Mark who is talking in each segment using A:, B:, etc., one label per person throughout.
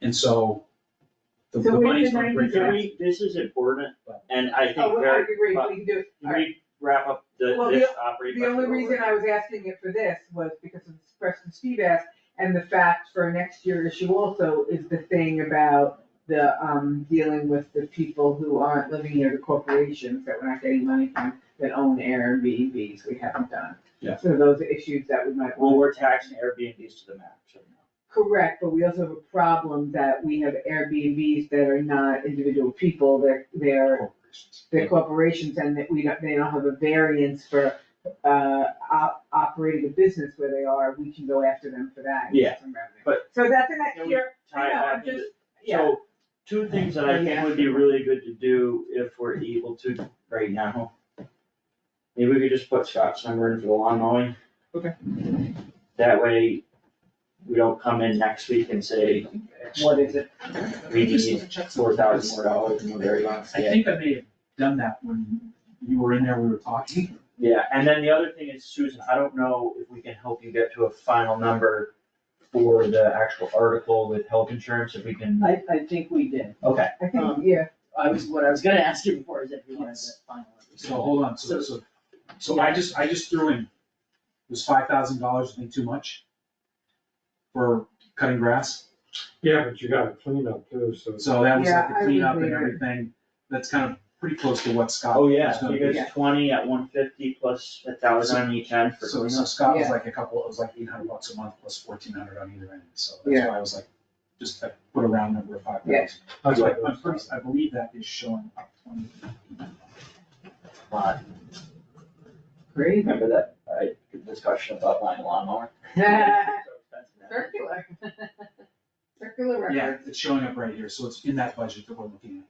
A: And so the the
B: So we
A: money's
B: did
A: going to break
B: 90
A: out.
B: days.
C: Can we, this is important, and I think
B: Oh, I
C: very,
B: agree, we can do it.
C: can we wrap up the,
B: Well,
C: this operating
B: The only
C: budget
B: reason I was asking it for this was because of the question Steve asked, and the fact for next year issue also is the thing about the, um, dealing with the people who aren't living near the corporations that we're not getting money from, that own Airbnbs we haven't done.
A: Yeah.
B: So those are issues that we might.
C: Well,
B: want-
C: we're taxing Airbnbs to the max right now.
B: Correct, but we also have a problem that we have Airbnbs that are not individual people, they're, they're
A: Corporations.
B: the corporations and that we don't, they don't have a variance for uh op- operating a business where they are, we can go after them for that. and get
C: Yeah,
B: some revenue.
C: but-
B: So that's an
C: Can
B: next
C: we
B: year,
C: Tie
B: I
C: it
B: know,
C: back
B: I'm
C: into
B: just, yeah,
C: So, two things that I think would be really good to do if we're able to right now. Maybe we could just put Scott's number in for the lawn mowing.
A: Okay.
C: That way, we don't come in next week and say,
B: what is it?
C: we need four thousand more dollars, and we're very honest.
A: I think I may have done that when you were in there, we were talking.
C: Yeah, and then the other thing is, Susan, I don't know if we can help you get to a final number for the actual article with health insurance, if we can,
D: I, I think we did.
C: okay.
B: I think,
D: Um,
B: yeah,
D: I was, what I was gonna ask you before is if you wanted to
A: So
D: final.
A: hold on, so, so, so I just, I just threw in, was five thousand dollars, I think, too much? For cutting grass,
E: Yeah, but you gotta clean up too, so.
A: so that was like
B: Yeah, I
A: the cleanup
B: would
A: and
B: agree.
A: everything, that's kind of pretty close to what Scott
C: Oh,
A: was
C: yeah,
A: gonna
C: you
A: do.
C: guys twenty at one fifty plus a thousand on each end for
A: So,
C: cleanup.
A: so Scott was
B: Yeah.
A: like a couple, it was like eight hundred bucks a month plus fourteen hundred on either end, so that's
B: Yeah.
A: why I was like, just I put a round number of five
B: Yeah.
A: thousand. That's why I'm pretty, I believe that is showing up twenty.
C: Lot.
B: crazy.
C: Remember that, I, discussion about buying a lawnmower?
B: Circular. Circular
A: Yeah,
B: record.
A: it's showing up right here, so it's in that budget that we're looking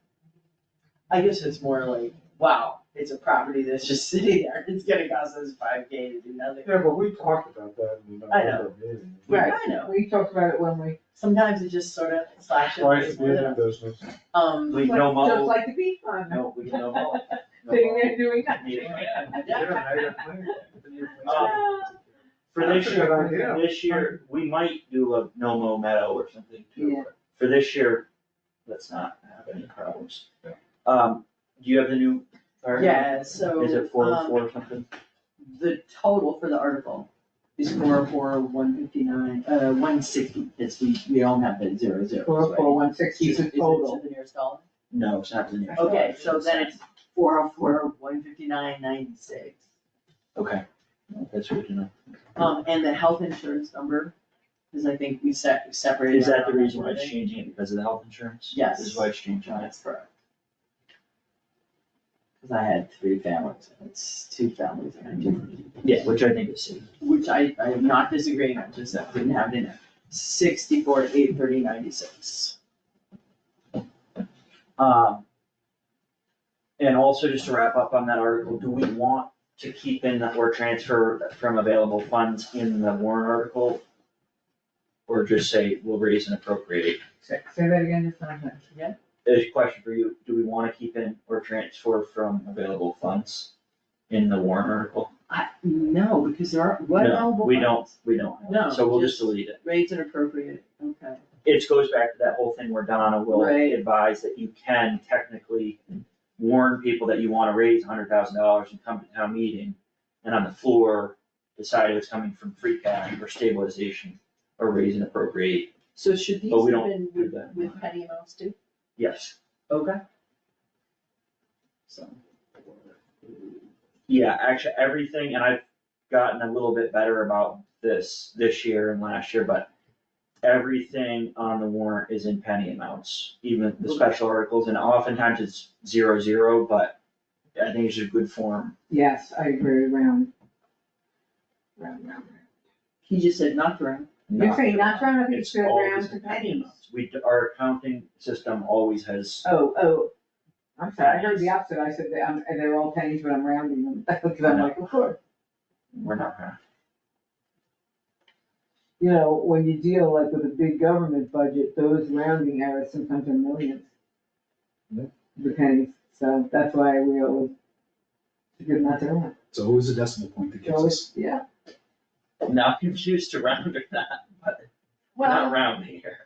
D: I guess it's more like, wow, it's a property that's just sitting there, it's gonna cost us five K to do nothing.
E: Yeah, but we talked about that in the
D: I
E: other meeting.
B: Right.
D: I know,
B: We talked about it when we,
D: sometimes it just sort of slashes.
E: Twice we did business.
D: Um,
C: We no
B: just
C: mow,
B: like the bee farm,
C: no, we no mow. No
B: sitting
C: mow.
B: there doing
C: Need
B: nothing.
C: it, yeah.
B: Oh,
A: at.
C: Um, For this
E: That's a
C: year,
E: good idea.
C: this year, we might do a no mow meadow or something
B: Yeah.
C: too, but for this year, let's not have any problems. Um, do you have the new fire?
D: yeah, so.
C: Is it four
D: um,
C: oh four or something?
D: The total for the article is four oh four, one fifty-nine, uh, one sixty, it's, we, we all have the zero zero.
B: Four, four, one, six, is
D: Is it, is
B: the
D: it
B: total.
D: to the nearest dollar?
C: No, it's not the new.
D: Okay, so then it's four oh four, one fifty-nine, ninety-six.
C: Okay, that's what you know.
D: Um, and the health insurance number, because I think we set, separated.
C: Is that the
D: out.
C: reason why it's changing it, because of the health insurance?
D: Yes.
C: Is why it's changing it?
D: That's correct. Because I had three families, and it's two families, and I didn't,
C: Yeah, which I think is safe.
D: which I, I am not disagreeing, I just didn't have it in there. Sixty-four, eight, thirty, ninety-six.
C: Um. And also, just to wrap up on that article, do we want to keep in that or transfer from available funds in the warrant article? Or just say we'll raise and appropriate?
B: Say say that again, just one time.
C: There's a question for you, do we wanna keep in or transfer from available funds in the warrant article?
D: I, no, because there are, what
C: No,
D: eligible
C: We don't,
D: funds?
C: we don't,
D: No,
C: so we'll just
D: just-
C: delete it.
D: Rates inappropriate, okay.
C: It goes back to that whole thing where Donna will
D: Right.
C: advise that you can technically warn people that you wanna raise hundred thousand dollars and come to town meeting. And on the floor, decide it's coming from free cash or stabilization or raise and appropriate,
D: So should these
C: But Oh, we
D: have
C: don't
D: been
C: do
D: with,
C: that.
D: with petty amounts too?
C: yes.
D: Okay. So.
C: Yeah, actually, everything, and I've gotten a little bit better about this, this year and last year, but everything on the warrant is in penny amounts, even the special articles, and oftentimes it's zero, zero, but I think it's a good form.
B: Yes, I agree, round. Round, round.
D: He just said not for
B: You're saying not round, I think
C: It's
B: it's round
C: always
B: to
C: in penny
B: pennies.
C: amounts. We, our accounting system always has,
B: Oh, oh, I'm sorry, I heard the opposite, I said that, um, and they're all pennies, but I'm rounding them, because I'm like, of course.
C: we're not gonna,
B: You know, when you deal like with a big government budget, those rounding errors sometimes are millions.
E: Yeah.
B: The pennies, so that's why we always, it's good not to round,
A: It's always a decimal point that
B: It's
A: gives us.
B: always, yeah.
C: now confused to round or not, but we're
B: Well,
C: not rounding here.